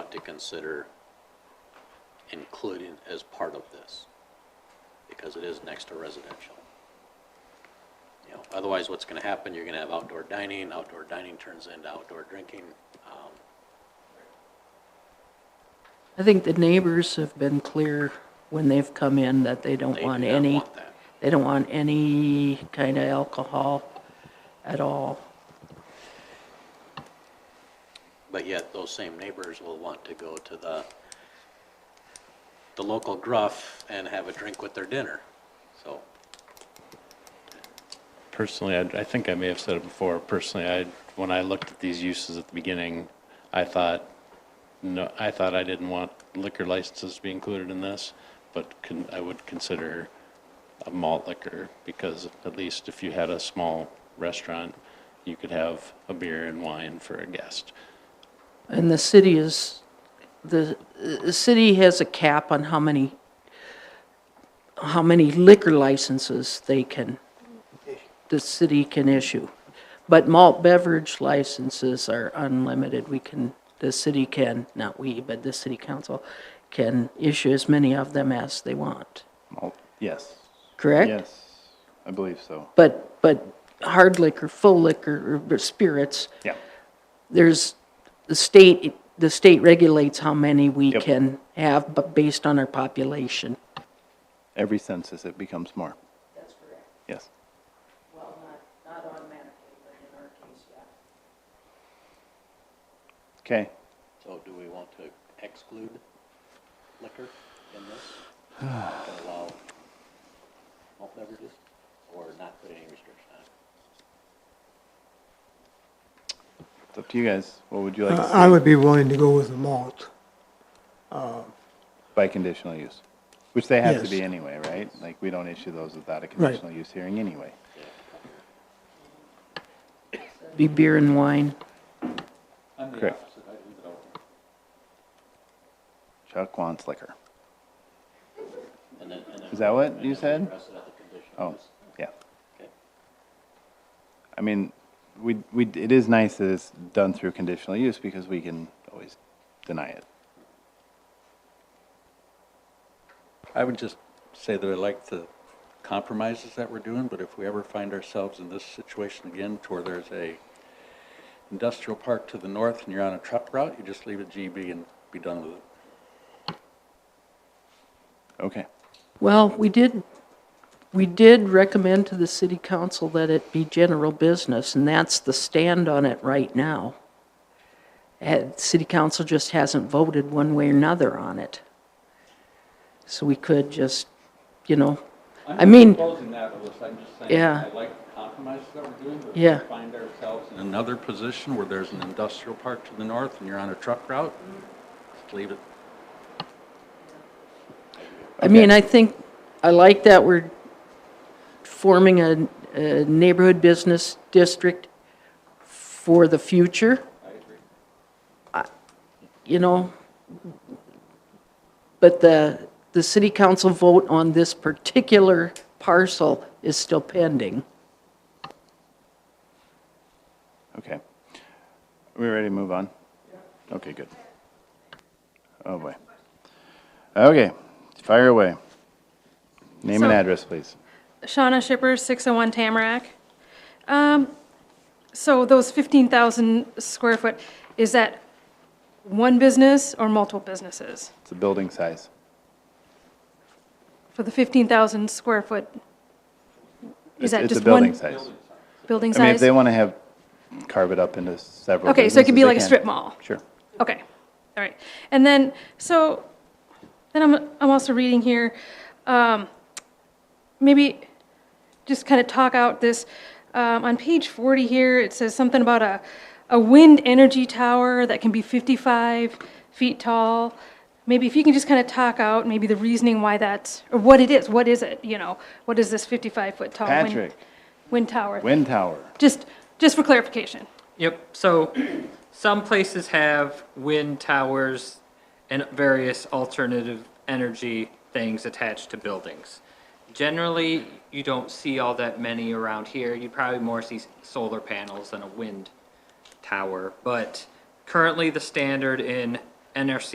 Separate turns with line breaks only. to consider including as part of this, because it is next to residential. You know, otherwise, what's gonna happen, you're gonna have outdoor dining, outdoor dining turns into outdoor drinking. um,
I think the neighbors have been clear when they've come in that they
they
don't
do
want
not
any,
want that.
they don't want any kind of alcohol at all.
But yet, those same neighbors will want to go to the, the local gruff and have a drink with their dinner, so.
Personally, I, I think I may have said it before, personally, I, when I looked at these uses at the beginning, I thought, no, I thought I didn't want liquor licenses to be included in this, but can, I would consider a malt liquor, because at least if you had a small restaurant, you could have a beer and wine for a guest.
And the city is, the, the city has a cap on how many, how many liquor licenses they can, the city can issue. But malt beverage licenses are unlimited. We can, the city can, not we, but the city council can issue as many of them as they want,
Malt, yes.
correct?
Yes, I believe so.
But, but hard liquor, full liquor, or spirits,
Yeah.
there's, the state, the state regulates how many we
Yep.
can have, but based on our population.
Every census, it becomes more.
That's correct.
Yes.
Well, not, not automatically, but in our case, yeah.
Okay.
So do we want to exclude liquor in this? And Allow malt beverages or not put any restriction on it?
It's up to you guys. What would you like
Uh,
to
I would be willing to go with the malt.
see by conditional use? Which they have to
Yes.
be anyway, right? Like, we don't issue those without a
Right.
conditional use hearing anyway.
Be beer and wine.
Correct. Chuck wants liquor.
And then, and then.
Is that what you said?
Rest of the condition.
Oh, yeah.
Okay.
I mean, we, we, it is nice that it's done through conditional use because we can always deny it.
I would just say that I like the compromises that we're doing, but if we ever find ourselves in this situation again to where there's a industrial park to the north and you're on a truck route, you just leave it GB and be done with it.
Okay.
Well, we did, we did recommend to the city council that it be general business, and that's the stand on it right now. And city council just hasn't voted one way or another on it. So we could just, you know, I mean,
Closing that, Alyssa, I'm just saying,
Yeah.
I like the compromises that we're doing, but
Yeah.
if we find ourselves in another position where there's an industrial park to the north and you're on a truck route, just leave it.
I mean, I think, I like that we're forming a, a neighborhood business district for the future. I agree. You know, but the, the city council vote on this particular parcel is still pending.
Okay. Are we ready to move on? Okay, good. Oh, boy. Okay, fire away. Name and
So-
address, please.
Shauna Shipper, 601 Tamarack. Um, So those 15,000 square foot, is that one business or multiple businesses?
It's the building size.
For the 15,000 square foot, is that
It's a
just one
building size.
building
I mean, if
size?
they want to have, carve it up into several
Okay, so it could be
businesses, they
like a
can.
strip mall?
Sure.
Okay, all right. And then, so, then I'm, I'm also reading here, um, maybe just kind of talk out this, um, on page 40 here, it says something about a, a wind energy tower that can be 55 feet tall. Maybe if you can just kind of talk out maybe the reasoning why that's, or what it is, what is it, you know? What is this 55-foot tall? wind-
Patrick.
Wind tower?
Wind tower.
Just, just for clarification.
Yep, so some places have wind towers and various alternative energy things attached to buildings. Generally, you don't see all that many around here. You'd probably more see s- solar panels than a wind tower. But currently, the standard in NRC